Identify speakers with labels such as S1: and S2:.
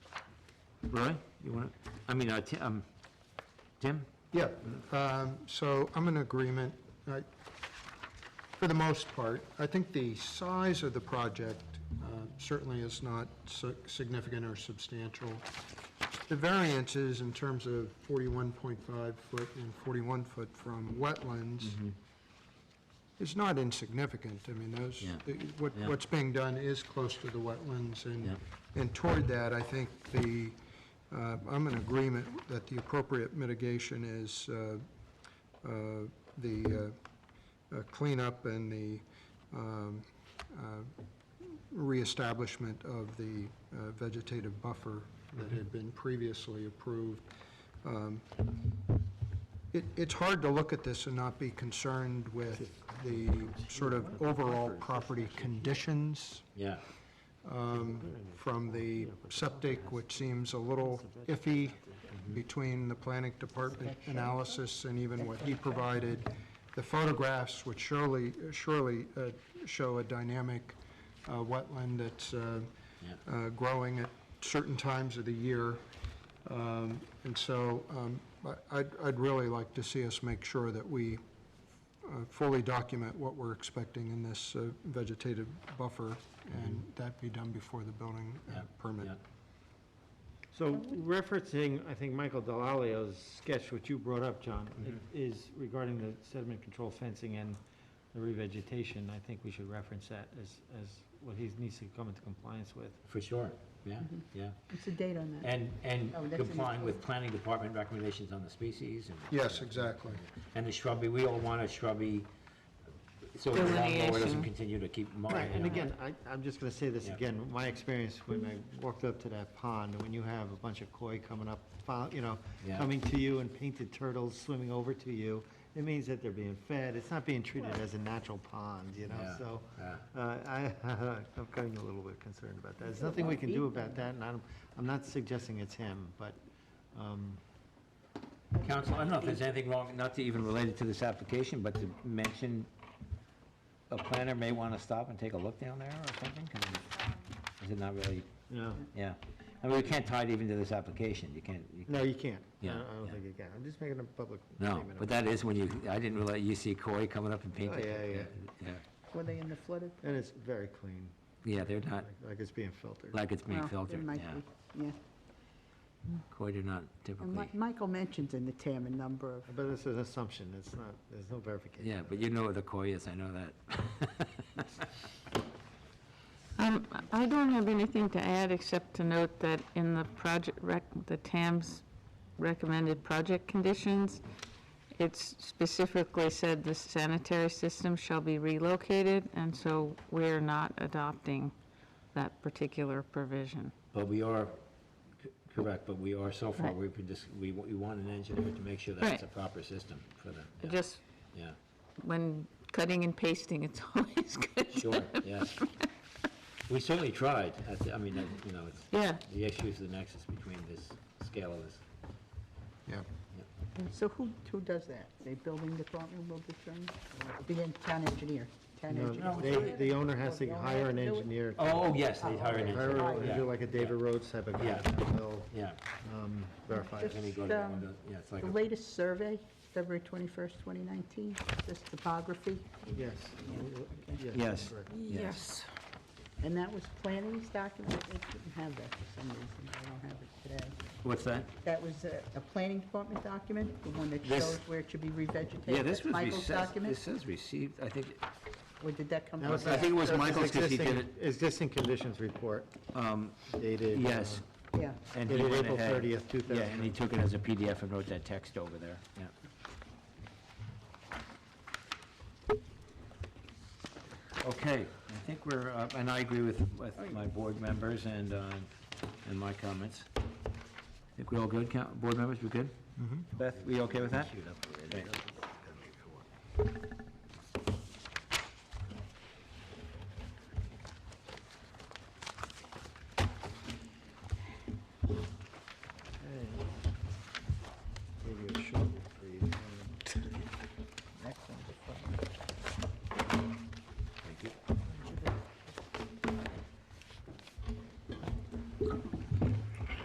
S1: Roy, you want to, I mean, uh, Ti- um, Tim?
S2: Yeah, um, so I'm in agreement, I- for the most part. I think the size of the project uh, certainly is not si- significant or substantial. The variances in terms of 41.5-foot and 41-foot from wetlands
S1: Mm-hmm.
S2: is not insignificant. I mean, those,
S1: Yeah.
S2: the- what-
S1: Yeah.
S2: what's being done is close to the wetlands,
S1: Yeah.
S2: and, and toward that, I think the, uh, I'm in agreement that the appropriate mitigation is uh, uh, the uh, uh, cleanup and the um, uh, reestablishment of the uh, vegetative buffer that had been previously approved. Um, It, it's hard to look at this and not be concerned with the sort of overall property conditions
S1: Yeah.
S2: um, from the septic, which seems a little iffy between the planning department analysis and even what he provided. The photographs, which surely, surely uh, show a dynamic uh, wetland that's uh,
S1: Yeah.
S2: uh, growing at certain times of the year. Um, And so um, I- I'd, I'd really like to see us make sure that we uh, fully document what we're expecting in this uh, vegetative buffer, and that be done before the building uh,
S1: Mm-hmm. Yeah,
S2: permit.
S1: yeah.
S3: So referencing, I think, Michael Delalio's sketch, which you brought up, John,
S1: Mm-hmm.
S3: is regarding the sediment control fencing and the revegetation, I think we should reference that as, as what he needs to come into compliance with.
S1: For sure, yeah, yeah.
S4: What's the date on that?
S1: And, and
S4: Oh, that's in the
S1: complying with
S4: code.
S1: planning department recommendations on the species and.
S2: Yes, exactly.
S1: And the shrubby, we all want a shrubby, so the lawnmower doesn't
S4: Delineation.
S1: continue to keep
S3: Right,
S1: mowing.
S3: and again, I, I'm just gonna say this
S1: Yeah.
S3: again, my experience when I walked up to that pond, when you have a bunch of koi coming up, fo- you know,
S1: Yeah.
S3: coming to you and painted turtles swimming over to you, it means that they're being fed, it's not being treated as a natural pond, you know,
S1: Yeah,
S3: so.
S1: yeah.
S3: Uh, I, I'm kind of a little bit concerned about that, there's nothing we can do about that, and I'm, I'm not suggesting it's him, but, um,
S1: Council, I don't know if there's anything wrong, not to even relate it to this application, but to mention a planner may want to stop and take a look down there or something, 'cause it- is it not really,
S3: you know,
S1: yeah. I mean, we can't tie it even to this application, you can't, you-
S3: no, you can't. I
S1: Yeah,
S3: don't- I don't
S1: yeah.
S3: think you can, I'm just making a public
S1: no,
S3: statement.
S1: but
S3: about
S1: that is when you, I didn't realize, you see Cory coming up and
S3: Oh,
S1: painting.
S3: yeah, yeah.
S1: yeah.
S4: Were they in the flooded?
S3: it. And it's very clean,
S1: Yeah, they're not,
S3: like it's being filtered.
S1: like it's being
S4: Well, it
S1: filtered,
S4: might
S1: yeah.
S4: be, Yeah.
S1: Cory did not
S4: And Mi-
S1: typically,
S4: Michael mentions in the TAM a number of,
S3: But it's an assumption, it's not, there's no verification.
S1: yeah, but you know what the Cory is, I know that.
S5: Um, I don't have anything to add except to note that in the project rec, the TAM's recommended project conditions, it's specifically said the sanitary system shall be relocated, and so we're not adopting that particular provision.
S1: But we are, c- correct, but we are, so far,
S5: Right.
S1: we've been just, we, we want an engineer to make sure that it's a
S5: Right.
S1: proper system for them. yeah,
S5: Just
S1: Yeah,
S5: when cutting and pasting, it's always good. to-
S1: sure, yes. We certainly tried, I th- I mean, uh, you know, it's,
S5: Yeah,
S1: the issue is the nexus between this scale of this.
S2: Yeah.
S4: so who, who does that? The building department will determine? Or The en- town engineer? Town engineer?
S3: No, they, the owner has to hire an engineer. to-
S1: Oh, yes, they
S4: Oh,
S1: hired an
S3: Hire,
S1: engineer,
S3: a- they do
S1: yeah,
S3: like a David Rhodes type of guy,
S1: Yeah.
S3: that will,
S1: yeah.
S3: um, verify. it.
S1: Then you go
S4: Just,
S1: to one of
S4: um,
S1: those- yeah, it's like
S4: The
S1: a-
S4: latest survey, February 21st, 2019, this topography,
S3: Yes.
S1: Yes.
S3: correct.
S1: Yes.
S4: and that was planning's document? It didn't have that for some reason, I don't have it today.
S1: What's that?
S4: That was a, a planning department document, the one that
S1: This-
S4: shows where it should be revegetated?
S1: Yeah, this
S4: That's
S1: was,
S4: Michael's
S1: received-
S4: document?
S1: this is received, I think,
S4: Or did that come?
S3: That
S4: from
S3: was-
S1: I think it was
S3: that
S1: Michael's 'cause he did
S3: existing- Existing conditions report
S1: um,
S3: dated. uh,
S1: yes.
S4: Yeah.
S1: And he
S3: It is
S1: went
S3: April
S1: ahead-
S3: 30th,
S1: Yeah, and he
S3: 2000.
S1: took it as a PDF and wrote that text over there, yeah. Okay, I think we're, uh, and I agree with, with my board members and, uh, and my comments. Mm-hmm. I think we all good, coun- board members, we good? Beth, we okay with that? Okay.